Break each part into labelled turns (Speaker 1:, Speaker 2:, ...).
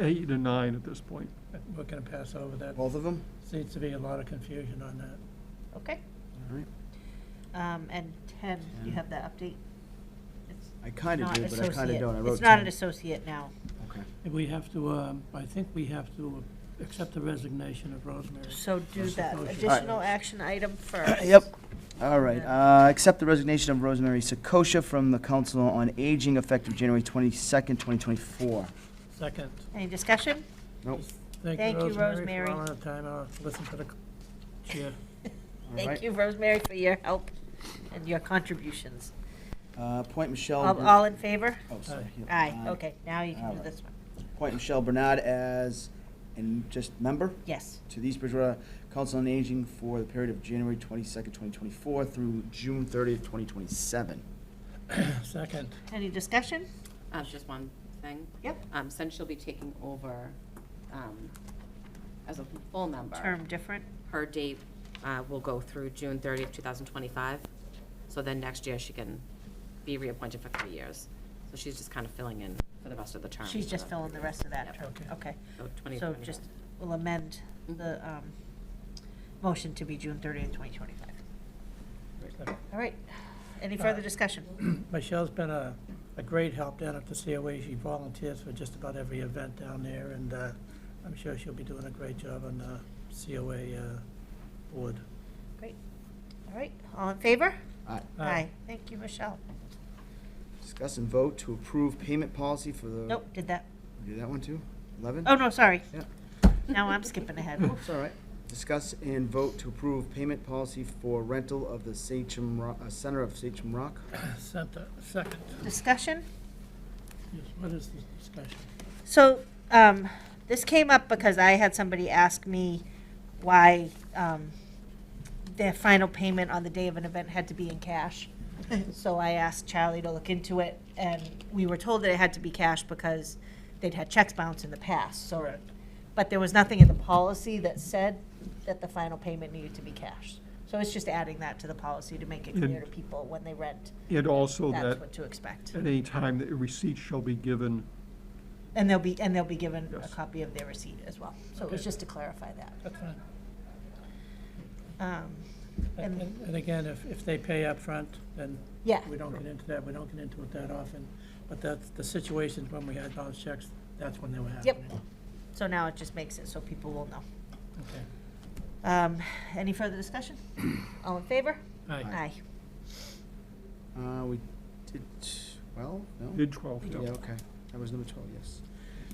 Speaker 1: eight and nine at this point.
Speaker 2: We're gonna pass over that.
Speaker 3: Both of them?
Speaker 2: Seems to be a lot of confusion on that.
Speaker 4: Okay,
Speaker 3: All right.
Speaker 4: um, and ten, you have that update? It's
Speaker 3: I kind of
Speaker 4: not
Speaker 3: do, but I kind of
Speaker 4: associate.
Speaker 3: don't. I wrote
Speaker 4: It's not an
Speaker 3: 10.
Speaker 4: associate now.
Speaker 3: Okay.
Speaker 2: We have to, um, I think we have to accept the resignation of Rosemary.
Speaker 4: So do
Speaker 2: That's the
Speaker 4: that
Speaker 2: motion.
Speaker 4: additional action item first.
Speaker 3: Yep. All right. Uh, Accept the resignation of Rosemary Sakosha from the Council on Aging effective January 22nd, 2024.
Speaker 2: Second.
Speaker 4: Any discussion?
Speaker 3: Nope.
Speaker 4: Thank you, Rosemary.
Speaker 2: For all the time, I'll listen to the c- chair.
Speaker 3: All
Speaker 4: Thank
Speaker 3: right.
Speaker 4: you, Rosemary, for your help and your contributions.
Speaker 3: Uh, Appoint Michelle.
Speaker 4: All,
Speaker 3: Ber-
Speaker 4: all in favor?
Speaker 3: oh, sorry. Yep.
Speaker 4: Aye, okay, now you
Speaker 3: All
Speaker 4: can do
Speaker 3: right.
Speaker 4: this one.
Speaker 3: Appoint Michelle Bernard as, and just member
Speaker 4: Yes,
Speaker 3: to the East Bridgewater Council on Aging for the period of January 22nd, 2024 through June 30th, 2027.
Speaker 2: Second.
Speaker 4: any discussion?
Speaker 5: Uh, just one thing.
Speaker 4: Yep.
Speaker 5: Um, since she'll be taking over, um, as a full member.
Speaker 4: Term different?
Speaker 5: Her date, uh, will go through June thirtieth, two thousand twenty-five. So then next year she can be reappointed for three years. So she's just kind of filling in for the rest of the term.
Speaker 4: She's just filling the rest of that
Speaker 5: Yep.
Speaker 4: term,
Speaker 2: Okay.
Speaker 4: okay.
Speaker 5: So twenty
Speaker 4: So
Speaker 5: twenty-one.
Speaker 4: just, we'll amend the, um, motion to be June thirtieth, twenty twenty-five. All right, any further
Speaker 2: Uh,
Speaker 4: discussion?
Speaker 2: Michelle's been a, a great help down at the COA. She volunteers for just about every event down there, and uh, I'm sure she'll be doing a great job on the COA uh, board.
Speaker 4: Great, all right, all in favor?
Speaker 3: All right.
Speaker 2: Aye.
Speaker 4: Thank you, Michelle.
Speaker 3: Discuss and vote to approve payment policy for the.
Speaker 4: Nope, did that,
Speaker 3: Do that one too? 11?
Speaker 4: oh, no, sorry.
Speaker 3: Yeah.
Speaker 4: Now I'm skipping ahead. Oops.
Speaker 3: It's all right. Discuss and vote to approve payment policy for rental of the Sachem, Ro- uh, Center of Sachem Rock.
Speaker 2: Center, second.
Speaker 4: Discussion?
Speaker 2: Yes, what is this discussion?
Speaker 4: So, um, this came up because I had somebody ask me why, um, their final payment on the day of an event had to be in cash. So I asked Charlie to look into it, and we were told that it had to be cash because they'd had checks bounced in the past, so. But there was nothing in the policy that said that the final payment needed to be cash. So it's just adding that to the policy to make it clear to
Speaker 1: And-
Speaker 4: people when they rent,
Speaker 1: And also
Speaker 4: that's
Speaker 1: that
Speaker 4: what to expect.
Speaker 1: at any time, that receipts shall be given.
Speaker 4: And they'll be, and they'll be given a
Speaker 1: Yes.
Speaker 4: copy of their receipt as well. So it was
Speaker 2: Okay.
Speaker 4: just to clarify that.
Speaker 2: That's fine.
Speaker 4: Um,
Speaker 2: And
Speaker 4: And-
Speaker 2: and again, if, if they pay up front, then
Speaker 4: Yeah,
Speaker 2: we don't get into that, we don't get into it that often. But that's, the situations when we had those checks, that's when they were
Speaker 4: Yep.
Speaker 2: happening.
Speaker 4: so now it just makes it so people will know.
Speaker 2: Okay.
Speaker 4: Um, Any further discussion? All in favor?
Speaker 2: All right,
Speaker 4: Aye.
Speaker 3: Uh, we did, well, no?
Speaker 1: Did 12, yeah.
Speaker 3: Yeah, okay. That was number 12, yes.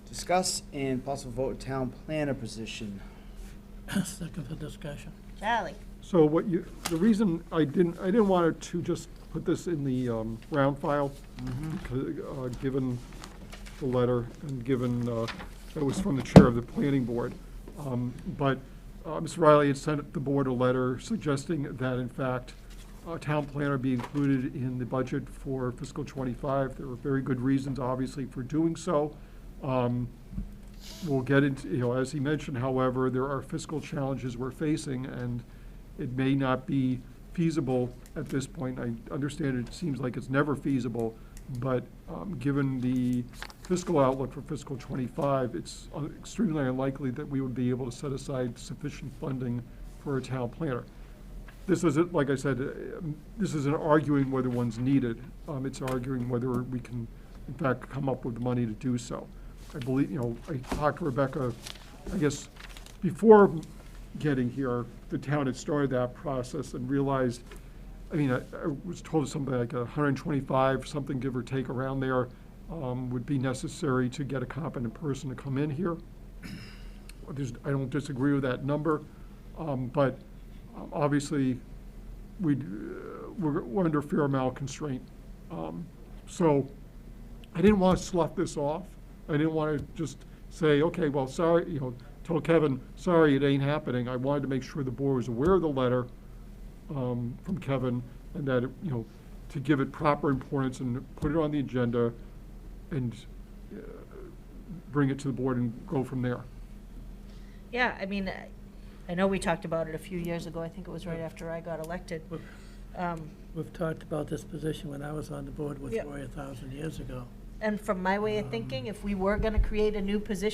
Speaker 3: Discuss and possible vote town planner position.
Speaker 2: second for discussion.
Speaker 4: Charlie?
Speaker 1: So what you, the reason I didn't, I didn't want to just put this in the um, round file, because, uh, given the letter and given, uh, it was from the chair of the planning board. Um, But uh, Ms. Riley had sent the board a letter suggesting that in fact, a town planner be included in the budget for fiscal '25. There were very good reasons, obviously, for doing so. Um, we'll get into, you know, as he mentioned, however, there are fiscal challenges we're facing, and it may not be feasible at this point. I understand it seems like it's never feasible, but um, given the fiscal outlook for fiscal '25, it's uh, extremely unlikely that we would be able to set aside sufficient funding for a town planner this isn't, like I said, uh, um, this isn't arguing whether one's needed. Um, It's arguing whether we can, in fact, come up with money to do so. I believe, you know, I talked to Rebecca, I guess, before getting here, the town had started that process and realized, I mean, I I was told something like 125, something give or take around there, um, would be necessary to get a competent person to come in here. There's, I don't disagree with that number, um, but um, obviously, we, uh, we're we're under a fair amount of constraint. Um, So I didn't want to slough this off. I didn't want to just say, okay, well, sorry, you know, tell Kevin, sorry, it ain't happening. I wanted to make sure the board was aware of the letter um, from Kevin and that, it, you know, to give it proper importance and put it on the agenda and uh, bring it to the board and go from there.
Speaker 4: Yeah, I mean, I- I know we talked about it a few years ago. I think it was right after I got elected.
Speaker 2: We've-
Speaker 4: Um,
Speaker 2: We've talked about this position when I was on the board with
Speaker 4: Yeah.
Speaker 2: Roy a thousand years ago.
Speaker 4: And from my way of thinking, if we were going to create a new position